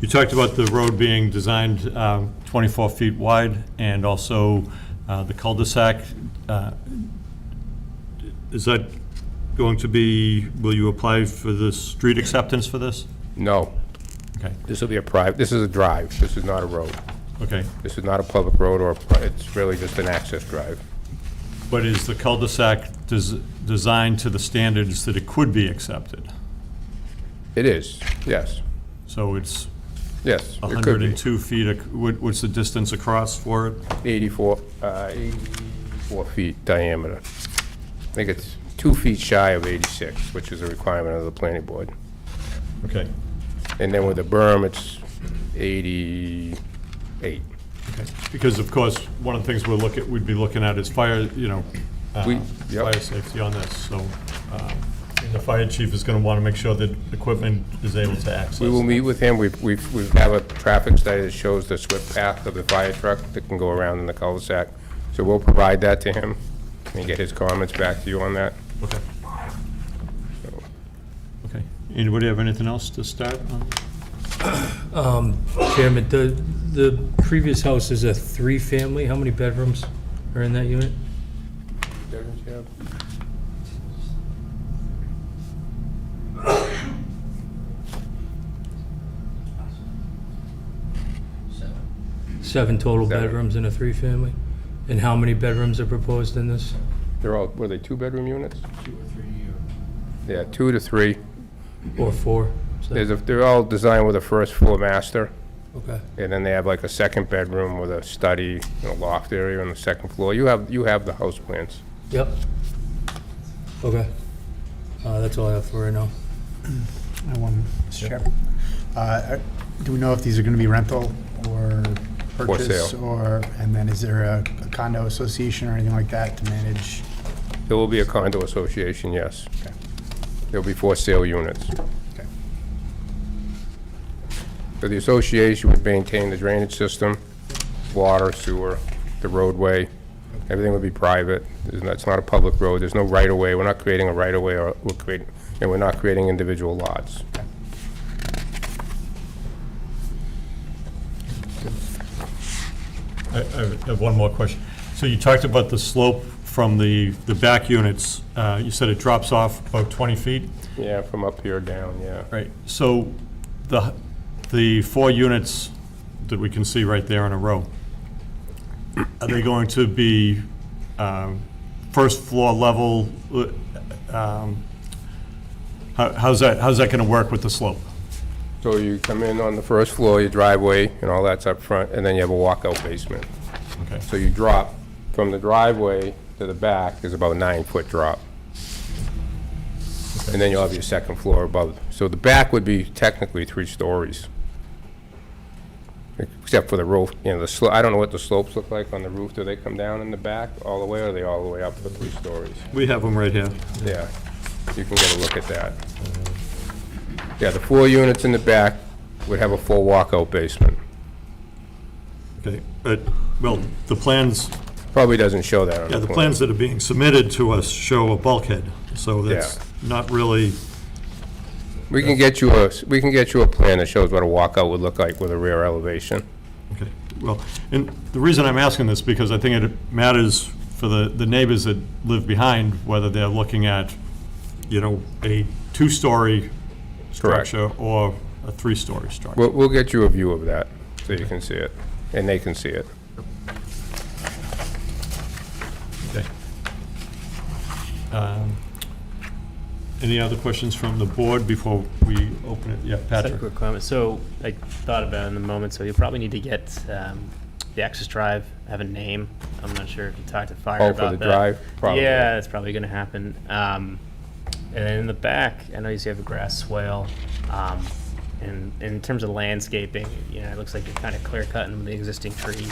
You talked about the road being designed um, 24 feet wide and also uh, the cul-de-sac. uh, Is that going to be, will you apply for the street acceptance for this? No, Okay, this will be a private, this is a drive, this is not a road. okay. This is not a public road or, a pri- it's really just an access drive. But is the cul-de-sac des- designed to the standards that it could be accepted? It is, yes, So it's yes, it could be. 102 feet, ac- what- what's the distance across for it? 84, uh, 84 feet diameter. I think it's two feet shy of 86, which is a requirement of the planning board. Okay, And then with the berm, it's 88. okay. Because of course, one of the things we're looking, we'd be looking at is fire, you know, uh, We- yep. fire safety on this, so um, and the fire chief is going to want to make sure that equipment is able to access. We will meet with him. We've, we've, we have a traffic study that shows the swift path of the fire truck that can go around in the cul-de-sac. So we'll provide that to him and get his comments back to you on that. Okay. Okay. Anybody have anything else to start on? Chairman, the, the previous house is a three-family, how many bedrooms are in that unit? Seven total Seven. bedrooms in a three-family? And how many bedrooms are proposed in this? They're all, were they two-bedroom units? two or three year. Yeah, two to three. Or four? So- There's a, they're all designed with a first floor master, Okay, and then they have like a second bedroom with a study and a loft area on the second floor. You have, you have the house plans. yep. Okay. Uh, that's all I have for right now. I have one, Mr. Chairman. Uh, are- Do we know if these are going to be rental or purchase? sale. Or, and then is there a a condo association or anything like that to manage? There will be a condo association, yes. Okay. There'll be for sale units. Okay. So the association would maintain the drainage system, water, sewer, the roadway. Everything would be private. There's not- It's not a public road. There's no right-of-way. We're not creating a right-of-way or we're creating, and we're not creating individual lots. I I have one more question. So you talked about the slope from the, the back units. Uh, You said it drops off about 20 feet? Yeah, from up here down, yeah. Right. So the, the four units that we can see right there in a row, are they going to be um, first floor level? um, how- How's that, how's that going to work with the slope? So you come in on the first floor, your driveway and all that's up front, and then you have a walkout basement. Okay, So you drop from the driveway to the back is about a nine-foot drop. And then you'll have your second floor above. So the back would be technically three stories. Except for the roof, you know, the slope, I don't know what the slopes look like on the roof. Do they come down in the back all the way, or are they all the way up to the three stories? we have them right here. Yeah, you can get a look at that. Yeah, the four units in the back would have a full walkout basement. Okay, but, well, the plans, Probably doesn't show that on yeah, the the plan. plans that are being submitted to us show a bulkhead, so that's Yeah. not really, We can get you a, we can get you a plan that shows what a walkout would look like with a rear elevation. okay. Well, and the reason I'm asking this, because I think it matters for the, the neighbors that live behind, whether they're looking at, you know, a two-story Correct. structure or a three-story structure. We'll, we'll get you a view of that, so you can see it, and they can see it. Okay. Um, Any other questions from the board before we open it? Yeah, Just had a Patrick? quick comment. So I thought about it in the moment, so you'll probably need to get um, the access drive, have a name. I'm not sure if you talked to fire Oh, about for the that. drive? Probably. Yeah, that's probably going to happen. Um, and then in the back, I know you see you have a grass swale. Um, and, in terms of landscaping, you know, it looks like you're kind of clear cutting the existing tree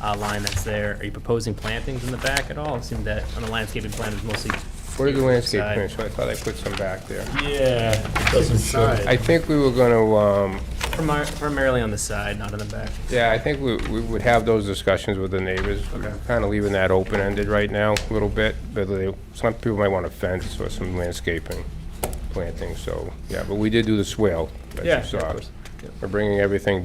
uh, line that's there. Are you proposing plantings in the back at all? It seemed that on the landscaping plan is mostly. What are the landscape Side. plans? So I thought I put some back there. Yeah, it doesn't show. I think we were gonna, um, Primarily on the side, not in the back. yeah, I think we, we would have those discussions with the neighbors. Kind of leaving that open-ended right now, a little bit, but they, some people might want a fence or some landscaping planting, so, yeah, but we did do the swale, as you Yeah, saw. of course. We're bringing everything